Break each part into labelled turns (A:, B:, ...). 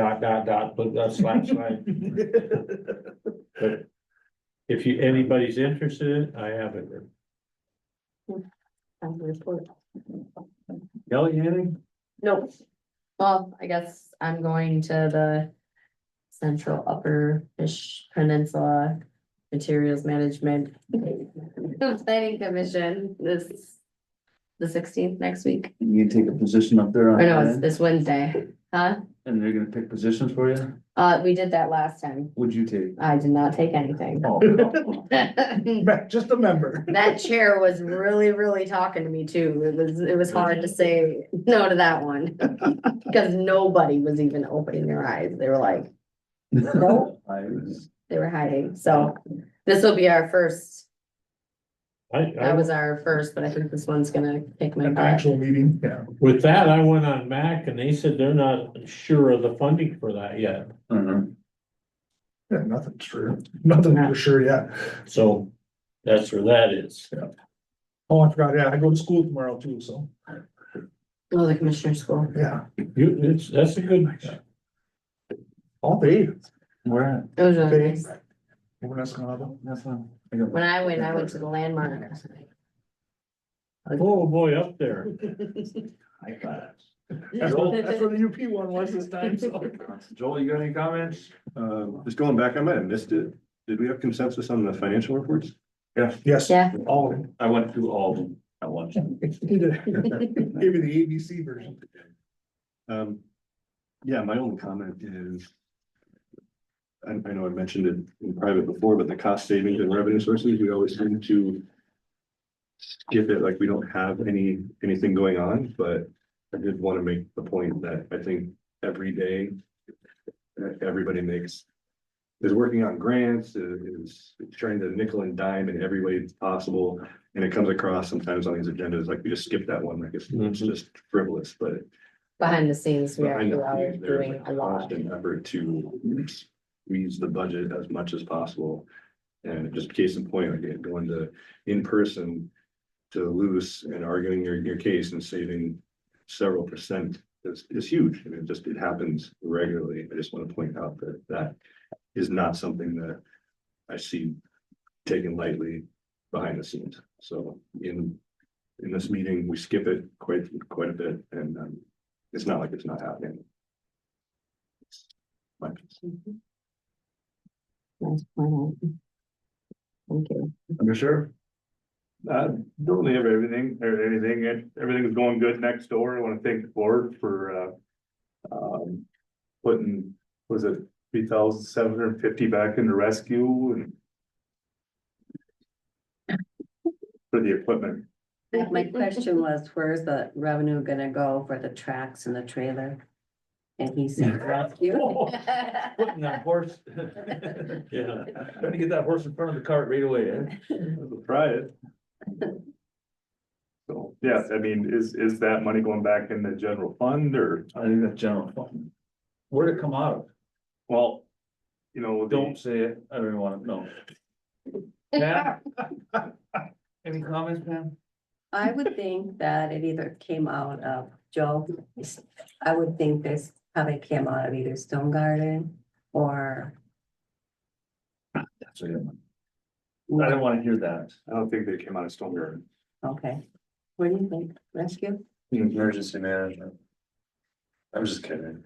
A: dot, dot, dot, but that's slash, slash. But if you, anybody's interested, I have it.
B: I report.
A: Kelly, anything?
B: Nope. Well, I guess I'm going to the Central Upper Fish Peninsula Materials Management Planning Commission this, the sixteenth next week.
C: You take a position up there on
B: Or no, it's
C: that,
B: this Wednesday, huh?
C: and they're gonna pick positions for you?
B: Uh, we did that last time.
C: Would you take?
B: I did not take anything.
C: Oh,
B: That
C: Just a member.
B: chair was really, really talking to me too. It was, it was hard to say no to that one. Because nobody was even opening their eyes. They were like, Nope.
C: I was-
B: they were hiding, so this will be our first,
A: I,
B: that
A: I,
B: was our first, but I think this one's gonna kick my
D: An
B: butt.
D: actual meeting, yeah.
A: with that, I went on Mac and they said they're not sure of the funding for that yet,
C: Uh-huh.
D: Yeah, nothing's sure, nothing for sure yet.
A: so that's where that is.
D: Oh, I forgot, yeah, I go to school tomorrow too, so,
B: Oh, the commissioner school.
D: yeah,
A: You, it's, that's a good,
D: all day.
C: Where at?
B: It was really
D: Day.
B: nice.
D: Over in Escondido.
C: That's not. I got-
B: When I went, I went to the landmark.
A: oh boy, up there.
C: I got
D: Joel, That's where the UP one was this time, so.
C: it. Joel, you got any comments?
E: Uh, just going back, I might have missed it. Did we have consensus on the financial reports?
D: Yes.
B: Yeah.
D: All of it.
C: I went through all of them at once.
D: He did. Give me the ABC version.
E: Um, yeah, my only comment is. I, I know I mentioned it in private before, but the cost savings and revenue sources, we always seem to. Skip it like we don't have any, anything going on, but I did want to make the point that I think every day. that everybody makes. Is working on grants, is trying to nickel and dime in every way possible, and it comes across sometimes on these agendas, like we just skip that one, like it's, it's
A: Mhm.
E: just frivolous, but.
B: Behind the scenes, we are
E: Behind the
B: you are
E: scenes, there's
B: doing a lot.
E: constant Effort to squeeze the budget as much as possible. And just case in point, again, going to in person to loose and arguing your, your case and saving several percent is, is huge. And it just, it happens regularly. I just want to point out that that is not something that I see taken lightly behind the scenes. So in, in this meeting, we skip it quite, quite a bit and, um, it's not like it's not happening. Like,
B: Nice point out. Thank you.
E: Under sure.
F: Uh, don't really have everything, or anything, and everything's going good next door, I wanna thank the board for, uh. Um, putting, was it three thousand seven hundred and fifty back into rescue and. For the equipment,
G: My question was, where's the revenue gonna go for the tracks and the trailer? And he said, rescue.
C: Putting that horse.
A: Yeah.
C: Trying to get that horse in front of the cart right away, eh?
F: try it. So, yeah, I mean, is, is that money going back in the general fund or,
C: I think that's general fund. Where'd it come out of?
F: well, you know,
C: Don't
F: don't,
C: say it, I don't even wanna know. Pam? Any comments, Pam?
G: I would think that it either came out of Joe, I would think this probably came out of either Stone Garden or.
C: That's what I didn't want. I didn't wanna hear that.
F: I don't think they came out of Stone Garden.
G: Okay, what do you think, rescue?
C: Emergency management. I'm just kidding.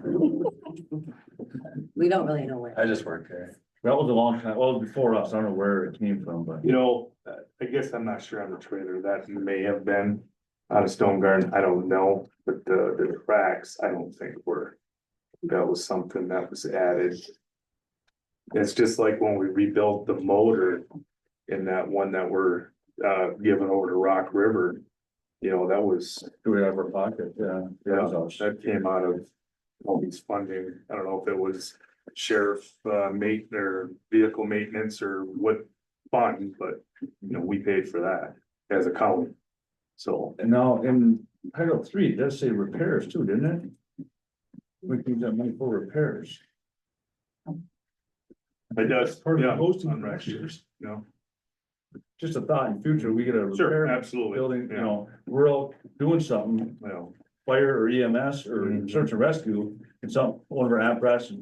G: We don't really know where.
C: I just work there. That was a long time, well, before us, I don't know where it came from, but.
F: You know, uh, I guess I'm not sure on the trailer, that may have been out of Stone Garden, I don't know, but the, the tracks, I don't think were. That was something that was added. It's just like when we rebuilt the motor in that one that we're, uh, giving over to Rock River. You know, that was,
C: Do we have our pocket? Yeah.
F: Yeah.
C: Yeah.
F: that came out of all these funding, I don't know if it was sheriff, uh, mate, or vehicle maintenance or what fund, but, you know, we paid for that as a county. So,
C: And now in title three, it does say repairs too, didn't it? We can use that money for repairs.
F: it does,
C: Part of the
F: yeah,
C: hosting
F: on rec
C: years.
F: you know,
C: Just a thought in future, we get a
F: sure,
C: repair
F: absolutely.
C: building, you
F: yeah,
C: know, we're all doing something,
F: Well.
C: fire or EMS or
F: Mhm.
C: Mm-hmm. search and rescue. And some, one of our apparatus